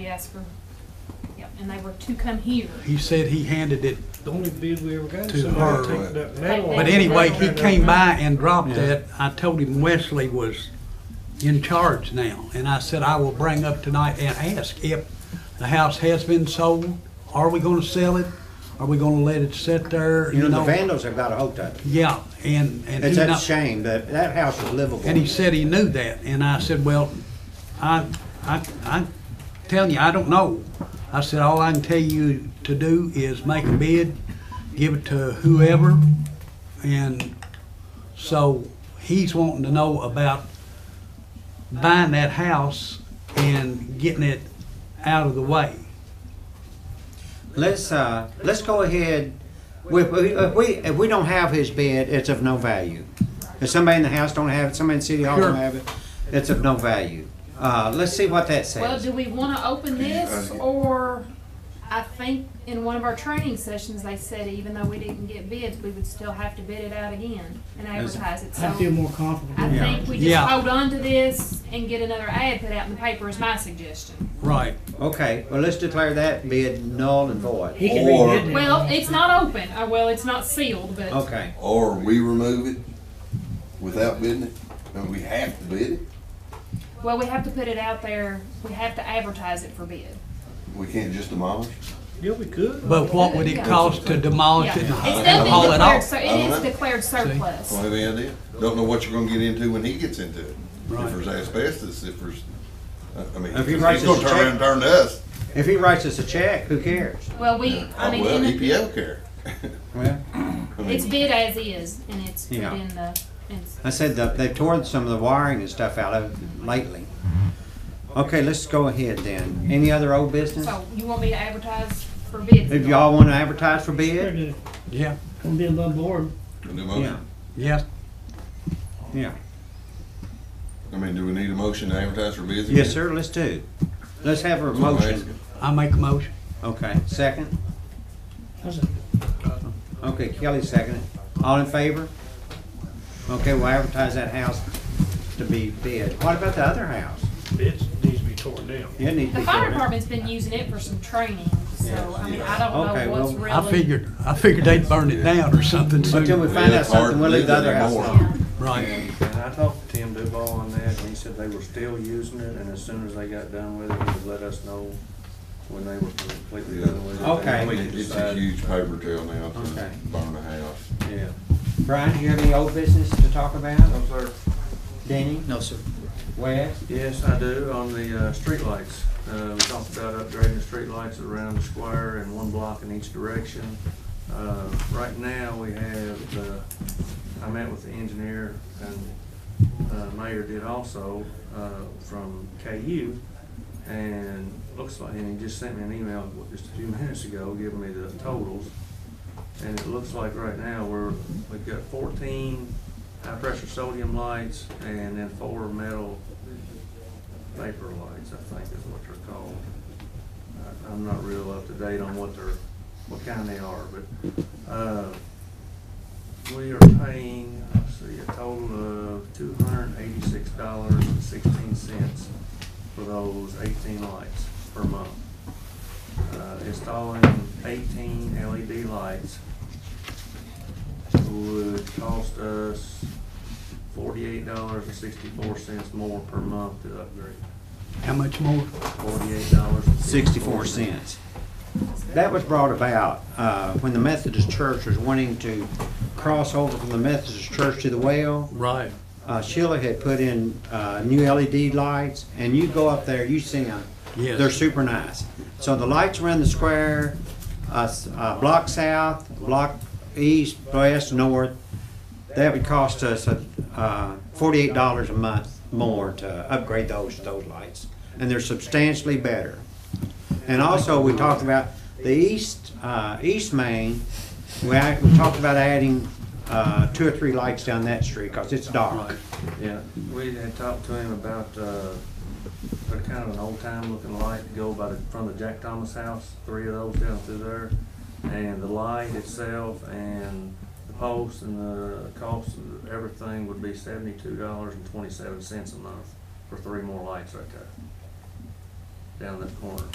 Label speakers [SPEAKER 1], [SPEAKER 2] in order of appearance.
[SPEAKER 1] We asked for, yep, and they were to come here.
[SPEAKER 2] He said he handed it,
[SPEAKER 3] The only bid we ever got is
[SPEAKER 2] To
[SPEAKER 3] somebody
[SPEAKER 2] her.
[SPEAKER 3] taking that metal.
[SPEAKER 1] But
[SPEAKER 2] but anyway, he came by and dropped that. I told him Wesley was in charge now, and I said, I will bring up tonight and ask if the house has been sold. Are we gonna sell it? Are we gonna let it sit there,
[SPEAKER 4] You
[SPEAKER 2] you
[SPEAKER 4] know, the
[SPEAKER 2] know?
[SPEAKER 4] vandals have got a hold of it.
[SPEAKER 2] Yeah, and, and.
[SPEAKER 4] It's
[SPEAKER 2] he
[SPEAKER 4] a
[SPEAKER 2] not-
[SPEAKER 4] shame, that, that house is livable.
[SPEAKER 2] And he said he knew that, and I said, well, I, I, I telling you, I don't know. I said, all I can tell you to do is make a bid, give it to whoever, and so he's wanting to know about buying that house and getting it out of the way.
[SPEAKER 4] Let's, uh, let's go ahead, we, we- if we, if we don't have his bid, it's of no value. If somebody in the house don't have it, somebody in City Hall
[SPEAKER 2] Sure.
[SPEAKER 4] don't have it, it's of no value. Uh, let's see what that
[SPEAKER 1] Well,
[SPEAKER 4] says.
[SPEAKER 1] do we wanna open this, or, I think in one of our training sessions, they said even though we didn't get bids, we would still have to bid it out again and advertise it, so.
[SPEAKER 3] I feel more confident.
[SPEAKER 1] I
[SPEAKER 4] Yeah.
[SPEAKER 1] think we just
[SPEAKER 2] Yeah.
[SPEAKER 1] hold on to this and get another ad put out in the paper is my suggestion.
[SPEAKER 2] Right.
[SPEAKER 4] Okay, well, let's declare that bid null and void.
[SPEAKER 3] He can be good now.
[SPEAKER 1] Well, it's not open, uh, well, it's not sealed, but
[SPEAKER 4] Okay,
[SPEAKER 5] Or we remove it without bidding it, and we have to bid it.
[SPEAKER 1] Well, we have to put it out there, we have to advertise it for bid.
[SPEAKER 5] We can't just demolish.
[SPEAKER 3] Yeah, we could.
[SPEAKER 2] But what would it cost to demolish
[SPEAKER 1] Yeah.
[SPEAKER 2] it Oh, and
[SPEAKER 1] It's
[SPEAKER 2] and
[SPEAKER 1] definitely
[SPEAKER 2] haul it
[SPEAKER 1] declared,
[SPEAKER 2] off?
[SPEAKER 1] so it is declared surplus.
[SPEAKER 5] Don't have any idea. Don't know what you're gonna get into when he gets into it.
[SPEAKER 2] Right.
[SPEAKER 5] If there's asbestos, if there's, uh, I- I mean,
[SPEAKER 4] If he
[SPEAKER 5] he's
[SPEAKER 4] writes
[SPEAKER 5] gonna
[SPEAKER 4] us a
[SPEAKER 5] turn around and turn to us.
[SPEAKER 4] if he writes us a check, who cares?
[SPEAKER 1] Well, we, I mean,
[SPEAKER 5] Well,
[SPEAKER 1] in the-
[SPEAKER 5] EPA don't care.
[SPEAKER 4] Well,
[SPEAKER 5] I mean,
[SPEAKER 1] it's bid as is and it's put
[SPEAKER 4] Yeah.
[SPEAKER 1] in the, it's-
[SPEAKER 4] I said that they've torn some of the wiring and stuff out of it lately. Okay, let's go ahead then. Any other old business?
[SPEAKER 1] so you want me to advertise for bids?
[SPEAKER 4] If y'all wanna advertise for bid?
[SPEAKER 3] Gonna
[SPEAKER 2] Yeah,
[SPEAKER 3] be above board.
[SPEAKER 5] a new
[SPEAKER 4] Yeah,
[SPEAKER 5] motion.
[SPEAKER 2] yeah.
[SPEAKER 4] yeah.
[SPEAKER 5] I mean, do we need a motion to advertise for bids?
[SPEAKER 4] Yes,
[SPEAKER 5] again?
[SPEAKER 4] sir, let's do. Let's have a
[SPEAKER 5] That's what I'm
[SPEAKER 4] motion.
[SPEAKER 5] asking.
[SPEAKER 2] I make a motion.
[SPEAKER 4] Okay, second?
[SPEAKER 3] I said,
[SPEAKER 4] Okay, Kelly seconded. All in favor? Okay, we'll advertise that house to be bid. What about the other house?
[SPEAKER 3] It needs to be torn down.
[SPEAKER 4] It needs to
[SPEAKER 1] The fire
[SPEAKER 4] be torn down.
[SPEAKER 1] department's been using it for some training, so, I mean, I
[SPEAKER 4] Okay,
[SPEAKER 1] don't know what's
[SPEAKER 4] well,
[SPEAKER 1] really.
[SPEAKER 2] I figured, I figured they'd burn it down or something soon.
[SPEAKER 4] Until we find out
[SPEAKER 5] It's hard
[SPEAKER 4] something,
[SPEAKER 5] to
[SPEAKER 4] we'll leave the
[SPEAKER 5] live
[SPEAKER 4] other house
[SPEAKER 5] anymore.
[SPEAKER 4] alone.
[SPEAKER 2] Right.
[SPEAKER 6] And I talked to Tim Duval on that, and he said they were still using it, and as soon as they got done with it, he would let us know when they were completely done with it.
[SPEAKER 4] Okay.
[SPEAKER 5] I mean, It's a huge paper trail now to
[SPEAKER 4] Okay.
[SPEAKER 5] burn a house.
[SPEAKER 6] Yeah.
[SPEAKER 4] Brian, do you have any old business to talk about?
[SPEAKER 6] No, sir.
[SPEAKER 4] Denny? No, sir. Wes?
[SPEAKER 6] Yes, I do, on the, uh, streetlights. Uh, we talked about upgrading the streetlights around the square and one block in each direction. Uh, right now, we have the, I met with the engineer and, uh, mayor did also, uh, from KU. And looks like, and he just sent me an email just a few minutes ago giving me the totals. And it looks like right now, we're, we've got fourteen high-pressure sodium lights and then four metal vapor lights, I think is what they're called. I- I'm not real up to date on what they're, what kind they are, but, uh, we are paying, let's see, a total of two hundred and eighty-six dollars and sixteen cents for those eighteen lights per month. Uh, installing eighteen LED lights would cost us forty-eight dollars and sixty-four cents more per month to upgrade.
[SPEAKER 2] How much more?
[SPEAKER 6] Forty-eight dollars and
[SPEAKER 4] sixty-four cents. That was brought about uh, when the Methodist Church was wanting to cross over from the Methodist Church to the well.
[SPEAKER 2] Right.
[SPEAKER 4] Uh, Sheila had put in uh, new LED lights, and you go up there, you see them.
[SPEAKER 2] Yes.
[SPEAKER 4] They're super nice. So the lights around the square, uh, s- uh, block south, block east, west, north, that would cost us uh, forty-eight dollars a month more to upgrade those, those lights. And they're substantially better. And also, we talked about the east, uh, east main, we, act- we talked about adding, uh, two or three lights down that street, cause it's dark.
[SPEAKER 6] Yeah, we had talked to him about, uh, they're kind of an old time looking light to go by the, from the Jack Thomas house, three of those down through there. And the light itself and the post and the cost of everything would be seventy-two dollars and twenty-seven cents a month for three more lights right there. Down that corner.